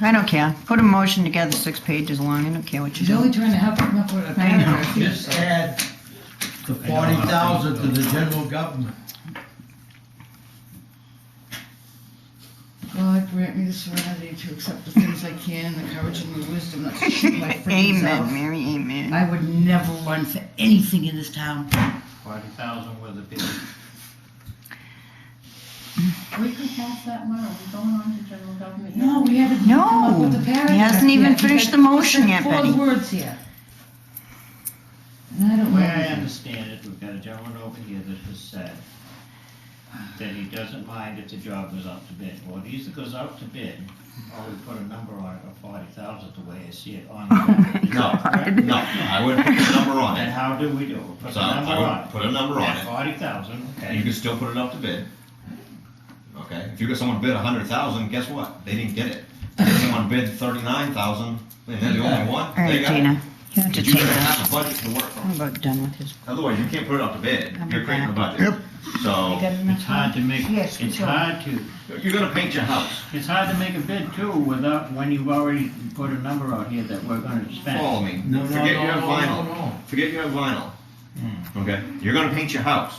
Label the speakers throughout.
Speaker 1: I don't care. Put a motion together, six pages long. I don't care what you
Speaker 2: She's
Speaker 1: do.
Speaker 2: only trying to help him up with a
Speaker 1: I know.
Speaker 2: paragraph. here,
Speaker 3: Just
Speaker 2: so-
Speaker 3: add the forty thousand to the general government.
Speaker 2: God grant me the serenity to accept the things I can, the courage and the wisdom not to shoot my freaking
Speaker 1: Amen,
Speaker 2: self.
Speaker 1: Mary, amen.
Speaker 2: I would never run for anything in this town.
Speaker 3: Forty thousand with a big.
Speaker 4: We could pass that one, are we going on to general government? yet?
Speaker 2: No, we haven't.
Speaker 1: No,
Speaker 2: come up with the paragraph
Speaker 1: he hasn't even
Speaker 2: yet.
Speaker 1: finished
Speaker 2: We've
Speaker 1: the
Speaker 2: got
Speaker 1: motion yet,
Speaker 2: four
Speaker 1: Betty.
Speaker 2: words here. And I
Speaker 3: The
Speaker 2: don't
Speaker 3: way I
Speaker 2: know.
Speaker 3: understand it, we've got a gentleman over here that has said that he doesn't mind if the job goes out to bid. Well, it either goes out to bid, or we put a number on it of forty thousand, the way I see it on. the-
Speaker 5: No, no, I wouldn't put a number on
Speaker 3: And
Speaker 5: it.
Speaker 3: how do we do it? We Put
Speaker 5: So
Speaker 3: a number
Speaker 5: I
Speaker 3: on
Speaker 5: would
Speaker 3: it.
Speaker 5: put a number on it.
Speaker 3: Forty thousand,
Speaker 5: You
Speaker 3: okay.
Speaker 5: can still put it up to bid. Okay, if you got someone bid a hundred thousand, guess what? They didn't get it. If someone bid thirty-nine thousand, and they're the only one,
Speaker 1: All
Speaker 5: they
Speaker 1: right,
Speaker 5: got it.
Speaker 1: Gina, you have to
Speaker 5: But
Speaker 1: take
Speaker 5: You gotta
Speaker 1: that.
Speaker 5: have a budget to work from.
Speaker 1: I'm about done with this.
Speaker 5: Otherwise, you can't put it up to bid.
Speaker 1: I'm
Speaker 5: You're creating a
Speaker 1: back.
Speaker 5: budget. Yep. So,
Speaker 3: It's hard to make,
Speaker 1: Yes,
Speaker 3: it's
Speaker 1: sure.
Speaker 3: hard to,
Speaker 5: you're gonna paint your house.
Speaker 3: it's hard to make a bid too without, when you've already put a number out here that we're gonna spend.
Speaker 5: Follow me.
Speaker 3: No, no,
Speaker 5: Forget
Speaker 3: no,
Speaker 5: you have
Speaker 3: no,
Speaker 5: vinyl.
Speaker 3: no, no. Hmm.
Speaker 5: Forget you have vinyl. Okay, you're gonna paint your house.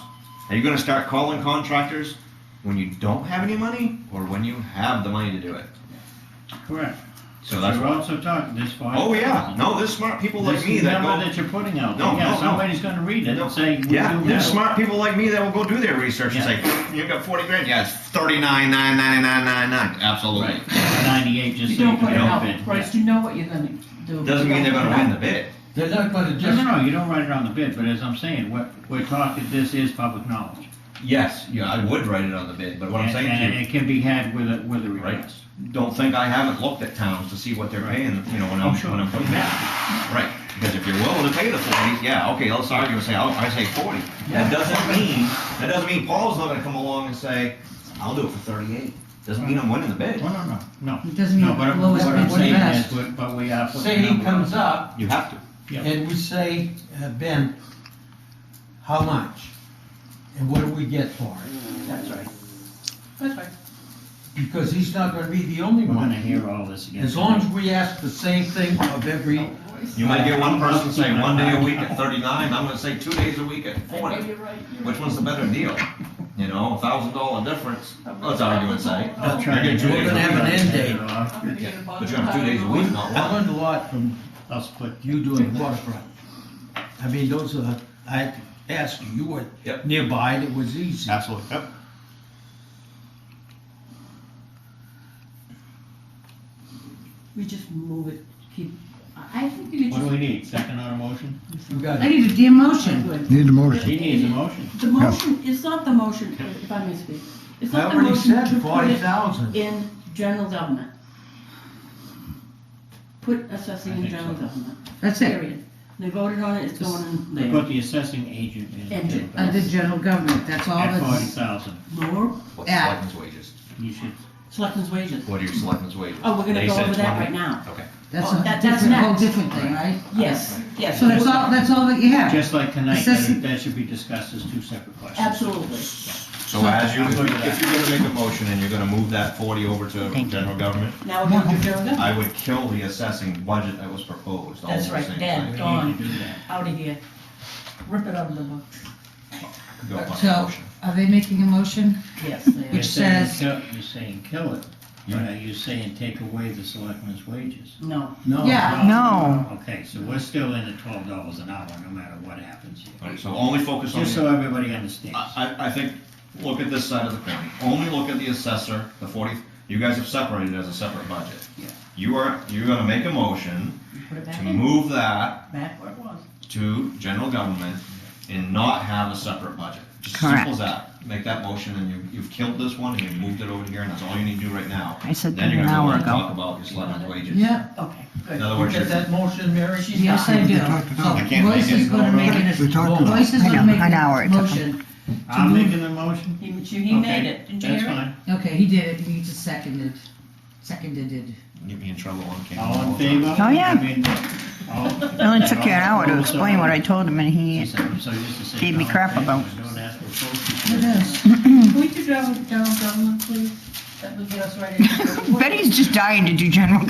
Speaker 5: Are you gonna start calling contractors when you don't have any money or when you have the money to do it?
Speaker 3: Correct.
Speaker 5: So that's
Speaker 3: We're
Speaker 5: why.
Speaker 3: also talking this far.
Speaker 5: Oh yeah, no, there's smart people like
Speaker 3: This
Speaker 5: me that
Speaker 3: number
Speaker 5: go.
Speaker 3: that you're putting out,
Speaker 5: No, no,
Speaker 3: yeah,
Speaker 5: no.
Speaker 3: somebody's gonna read it and say, we do
Speaker 5: Yeah, there's
Speaker 3: this.
Speaker 5: smart people like me that will go do their research and say, you got forty grand, yeah, it's thirty-nine, nine, nine, nine, nine, nine, absolutely.
Speaker 3: Right, ninety-eight, just
Speaker 4: You
Speaker 3: so you
Speaker 4: don't
Speaker 3: can
Speaker 4: put it
Speaker 3: help
Speaker 4: out,
Speaker 3: it.
Speaker 4: Bryce, you know what you're gonna do.
Speaker 5: Doesn't mean they're gonna win the bid.
Speaker 6: They're not gonna
Speaker 3: No,
Speaker 6: just,
Speaker 3: no, no, you don't write it on the bid, but as I'm saying, what, we're talking, this is public knowledge.
Speaker 5: Yes, yeah, I would write it on the bid, but what I'm
Speaker 3: And-
Speaker 5: saying to you.
Speaker 3: And it can be had with a, with a
Speaker 5: Right.
Speaker 3: request.
Speaker 5: don't think I haven't looked at towns to see what they're paying, you know, when I'm,
Speaker 3: Oh, sure.
Speaker 5: when I'm putting that. Right, because if you're willing to pay the forty, yeah, okay, let's argue and say, I'll- I say forty. That doesn't mean, that doesn't mean Paul's not gonna come along and say, I'll do it for thirty-eight. Doesn't mean I'm winning the bid.
Speaker 3: No, no, no, no.
Speaker 2: It doesn't mean
Speaker 3: No, but
Speaker 2: lowest
Speaker 3: what I'm
Speaker 2: bid wins
Speaker 3: saying is,
Speaker 2: best.
Speaker 3: but- but we are. putting
Speaker 6: say he
Speaker 3: numbers on
Speaker 6: comes
Speaker 3: it.
Speaker 6: up
Speaker 5: You have to.
Speaker 3: Yeah.
Speaker 6: and we say, uh, Ben, how much? And what do we get for it?
Speaker 3: That's right.
Speaker 4: That's right.
Speaker 6: Because he's not gonna be the only
Speaker 3: We're
Speaker 6: one.
Speaker 3: gonna hear all this again.
Speaker 6: As long as we ask the same thing of every,
Speaker 5: You might get one person saying one day a week at thirty-nine, I'm gonna say two days a week at
Speaker 4: I know
Speaker 5: forty.
Speaker 4: you're right. you're
Speaker 5: Which
Speaker 4: right.
Speaker 5: one's the better deal? You know, a thousand dollar difference, let's argue and say.
Speaker 4: That's
Speaker 5: You're getting two
Speaker 6: We're
Speaker 5: days a
Speaker 6: gonna have
Speaker 5: week.
Speaker 6: an end date.
Speaker 4: I'm gonna get a bottle
Speaker 5: But you have two
Speaker 4: of
Speaker 5: days a
Speaker 4: wine.
Speaker 5: week, not
Speaker 6: I
Speaker 5: one.
Speaker 6: learned a lot from
Speaker 3: I'll split.
Speaker 6: you doing waterfront. I mean, those are, I had to ask you, you were
Speaker 5: Yep.
Speaker 6: nearby, and it was easy.
Speaker 5: Absolutely, yep.
Speaker 4: We just move it, keep, I I think you
Speaker 3: What do
Speaker 4: could
Speaker 3: we need, second on a motion?
Speaker 6: You got
Speaker 2: I
Speaker 6: it.
Speaker 2: need a damn
Speaker 4: just.
Speaker 2: motion.
Speaker 4: Good.
Speaker 7: Need a motion.
Speaker 3: He needs a motion.
Speaker 4: The motion, it's not the motion, if I may speak, it's
Speaker 6: I
Speaker 4: not the
Speaker 6: already
Speaker 4: motion
Speaker 6: said
Speaker 4: to put
Speaker 6: forty
Speaker 4: it
Speaker 6: thousand.
Speaker 4: in general government. Put assessing
Speaker 3: I
Speaker 4: in
Speaker 3: think
Speaker 4: general
Speaker 3: so.
Speaker 4: government,
Speaker 2: That's it.
Speaker 4: period. They voted on it, it's going in
Speaker 3: We
Speaker 4: there.
Speaker 3: put the assessing agent in.
Speaker 4: Agent.
Speaker 2: Under general government, that's all
Speaker 3: At forty
Speaker 2: that's,
Speaker 3: thousand,
Speaker 4: Lower
Speaker 5: What's
Speaker 2: Yeah.
Speaker 5: selectmen's wages?
Speaker 3: you should,
Speaker 4: selectmen's wages.
Speaker 5: What are your selectmen's wages?
Speaker 4: Oh, we're gonna
Speaker 5: They
Speaker 4: go
Speaker 5: said
Speaker 4: over that
Speaker 5: 20.
Speaker 4: right now.
Speaker 5: Okay.
Speaker 2: that's
Speaker 4: Oh,
Speaker 2: a
Speaker 4: that- that's
Speaker 2: different, whole
Speaker 4: next.
Speaker 2: different thing, right?
Speaker 4: Yes, yes.
Speaker 2: So that's all, that's all that you have?
Speaker 3: just like tonight, that
Speaker 2: Assessing-
Speaker 3: that should be discussed as two separate questions.
Speaker 4: Absolutely.
Speaker 5: So as you,
Speaker 3: I'm
Speaker 5: if
Speaker 3: good with
Speaker 5: if you're gonna make a motion and you're gonna move that forty over to
Speaker 1: Thank you.
Speaker 5: general government,
Speaker 4: Now we're going to general government,
Speaker 5: I would kill the assessing budget that was proposed. all
Speaker 4: That's
Speaker 5: the
Speaker 4: right,
Speaker 5: same
Speaker 4: Dan.
Speaker 3: We
Speaker 5: thing.
Speaker 3: need to do that.
Speaker 4: out of here. Rip it out of the book,
Speaker 5: Go on,
Speaker 2: So,
Speaker 5: motion.
Speaker 2: are they making a motion?
Speaker 4: yes, they
Speaker 3: You're
Speaker 2: Which
Speaker 4: are.
Speaker 3: saying
Speaker 2: says-
Speaker 3: kill- You're saying kill it, but are you saying take away the selectmen's wages?
Speaker 4: no,
Speaker 6: No.
Speaker 2: Yeah.
Speaker 1: No.
Speaker 3: Okay, so we're still in at twelve dollars an hour, no matter what happens here.
Speaker 5: All right, so only focus on,
Speaker 3: Just so
Speaker 5: the-
Speaker 3: everybody understands.
Speaker 5: I, I I think, look at this side of the coin. Only look at the assessor, the forty, you guys have separated it as a separate budget.
Speaker 3: Yeah.
Speaker 5: You are, you're gonna make a motion
Speaker 4: you put it back
Speaker 5: to
Speaker 4: in,
Speaker 5: move that
Speaker 4: back where it was.
Speaker 5: to general government and not have a separate budget. Just
Speaker 1: Correct.
Speaker 5: simple as that. Make that motion and you, you've killed this one and you've moved it over here and that's all you need to do right now.
Speaker 1: I said
Speaker 5: Then
Speaker 1: that
Speaker 5: you're
Speaker 1: an
Speaker 5: gonna go
Speaker 1: hour
Speaker 5: and
Speaker 1: ago.
Speaker 5: talk about your selectmen's wages.
Speaker 2: Yeah,
Speaker 4: Okay,
Speaker 5: In
Speaker 4: good.
Speaker 5: other
Speaker 6: You
Speaker 5: words,
Speaker 6: get
Speaker 5: you're-
Speaker 6: that motion, Mary?
Speaker 4: She's
Speaker 2: yes, I
Speaker 4: not-
Speaker 2: do.
Speaker 7: talked it out.
Speaker 5: I
Speaker 2: So
Speaker 5: can't
Speaker 2: Royce
Speaker 5: make it.
Speaker 2: is gonna make it,
Speaker 7: We talked about
Speaker 2: Royce
Speaker 7: it.
Speaker 2: is
Speaker 1: I
Speaker 2: gonna
Speaker 1: know,
Speaker 2: make
Speaker 1: an hour
Speaker 2: a
Speaker 1: it took him.
Speaker 2: motion.
Speaker 3: I'm
Speaker 2: move-
Speaker 3: making the motion.
Speaker 4: He, he made it, didn't you
Speaker 3: That's
Speaker 4: hear it?
Speaker 3: fine.
Speaker 2: Okay, he did it, he just seconded, seconded it.
Speaker 5: get me in trouble on camera.
Speaker 3: All in favor?
Speaker 1: Oh, yeah.
Speaker 3: I mean, all-
Speaker 1: It only took you an hour to explain what I told him, and
Speaker 3: She
Speaker 1: he,
Speaker 3: said, so just to say
Speaker 1: Gave me
Speaker 3: all in
Speaker 1: crap
Speaker 3: favor,
Speaker 1: about-
Speaker 3: Don't ask for
Speaker 2: It
Speaker 3: votes.
Speaker 2: is.
Speaker 4: Can we do general, general government, please? That would get us right in.
Speaker 1: Betty's just dying to do general